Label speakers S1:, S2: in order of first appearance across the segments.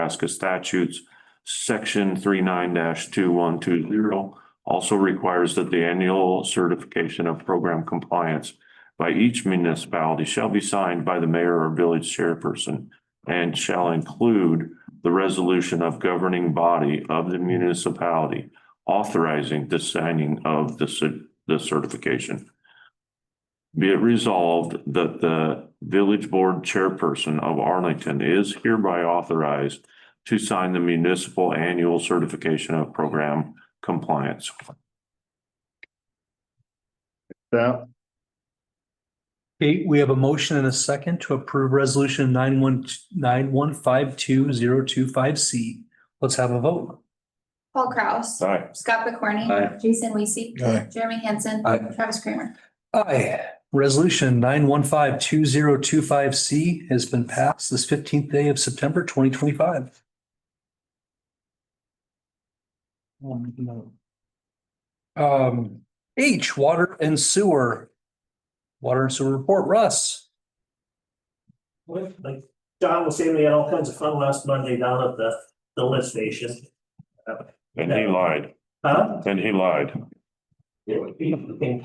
S1: Nebraska statutes, section three two one two zero also requires that the annual certification of program compliance by each municipality shall be signed by the mayor or village chairperson and shall include the resolution of governing body of the municipality authorizing the signing of the cer- the certification. Be it resolved that the village board chairperson of Arlington is hereby authorized to sign the municipal annual certification of program compliance.
S2: That,
S3: Okay, we have a motion and a second to approve resolution nine one, nine one five two zero two five C. Let's have a vote.
S4: Paul Kraus.
S1: Aye.
S4: Scott McCorney.
S3: Aye.
S4: Jason Weasey.
S2: Aye.
S4: Jeremy Hanson.
S3: Aye.
S4: Travis Kramer.
S3: Aye. Resolution nine one five two zero two five C has been passed this fifteenth day of September twenty twenty five. Um, H, water and sewer. Water and sewer report, Russ.
S5: Well, like John was saying, we had all kinds of fun last Monday down at the, the lift station.
S1: And he lied,
S5: Huh?
S1: and he lied.
S5: We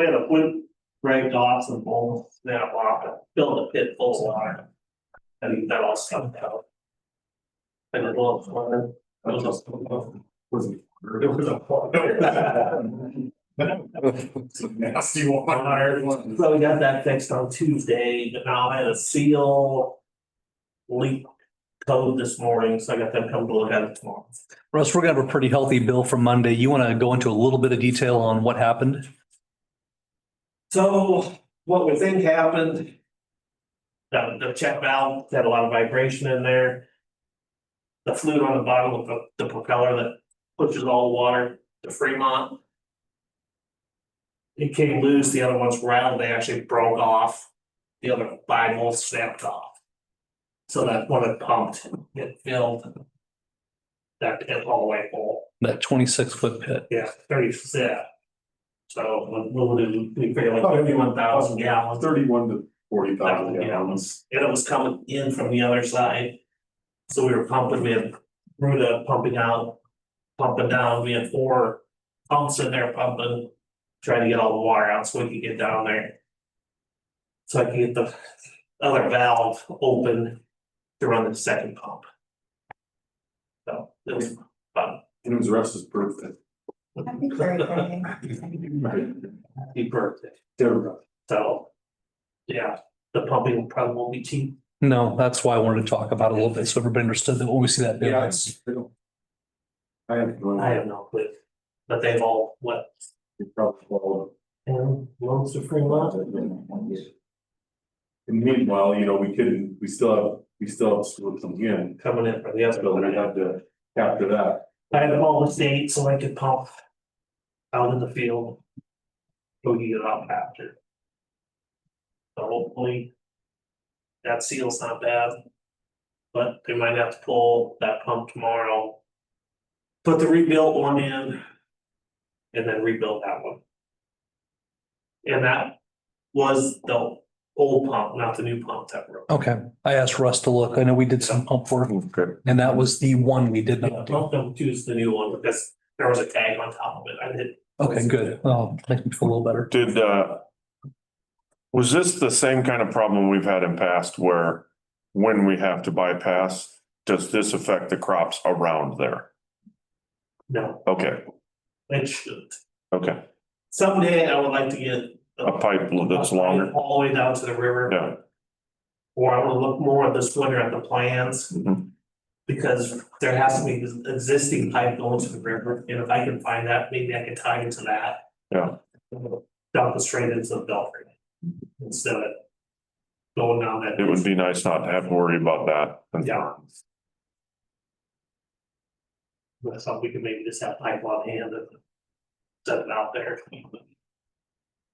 S5: had a wood rag off and bowl snap off and filled a pit full of water. And that all sucked out. And it was water. It was a- It was a.
S2: Nasty
S5: one. So we got that fixed on Tuesday, but now I had a seal. Leak code this morning, so I got them come to look at it tomorrow.
S3: Russ, we're gonna have a pretty healthy bill for Monday. You want to go into a little bit of detail on what happened?
S5: So what we think happened. The, the check valve had a lot of vibration in there. The fluid on the bottom of the, the propeller that pushes all the water to Fremont. It came loose, the other ones rattled, they actually broke off. The other bible snapped off. So that one it pumped, it filled. That pit all the way full.
S3: That twenty-six foot pit.
S5: Yeah, thirty percent. So what we'll do, we figure like thirty-one thousand gallons,
S2: Thirty-one to forty thousand
S5: thousand
S2: gallons.
S5: gallons. and it was coming in from the other side. So we were pumping, we had Ruda pumping out, pumping down, we had four pumps in there pumping. Trying to get all the water out so we could get down there. So I could get the other valve open to run the second pump. So it was fun.
S2: And it was Russ's birthday.
S4: Happy birthday.
S5: He birthed it.
S2: Terrible.
S5: So. Yeah, the pumping probably won't be cheap.
S3: No, that's why I wanted to talk about it a little bit, so everybody understood that when we see that bill.
S2: Yeah.
S3: it's-
S2: I have. no
S5: I
S2: idea.
S5: have no clue. But they've all what?
S2: It probably followed.
S5: And loans to Fremont?
S2: And meanwhile, you know, we couldn't, we still have, we still have school coming in,
S5: Coming in from the other
S2: so we
S5: building.
S2: had to capture that.
S5: I had all the state so I could pump. Out in the field. Go get it out after. So hopefully. That seal's not bad. But they might have to pull that pump tomorrow. Put the rebuilt one in. And then rebuild that one. And that was the old pump, not the new pump that broke.
S3: Okay, I asked Russ to look. I know we did some pump work and that was the one we did
S5: Yeah,
S3: not do.
S5: Pump number two is the new one because there was a tag on top of it. I did
S3: Okay, good. Oh, makes me feel a little better.
S1: Did, uh, was this the same kind of problem we've had in past where when we have to bypass, does this affect the crops around there?
S5: No,
S1: Okay,
S5: it shouldn't.
S1: okay,
S5: Someday I would like to get.
S1: a pipe that's longer,
S5: All the way down to the river.
S1: yeah.
S5: Or I wanna look more this winter at the plans
S1: mhm.
S5: because there has to be this existing pipe going to the river. And if I can find that, maybe I can tie into that.
S1: Yeah.
S5: Dump it straight into the Belfry. Instead of. Going down that.
S1: It would be nice not to have to worry about that.
S5: Yeah. That's something we could maybe just have pipe on hand and. Set it out there.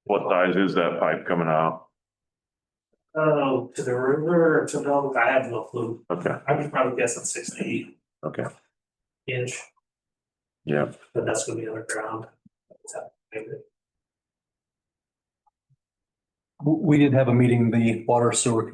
S1: What size is that pipe coming out?
S5: Oh, to the river, or to the, I have no clue.
S1: Okay,
S5: I could probably guess at six to eight
S1: okay,
S5: inch,
S1: yeah.
S5: but that's gonna be underground.
S3: We, we did have a meeting, the water sewer committee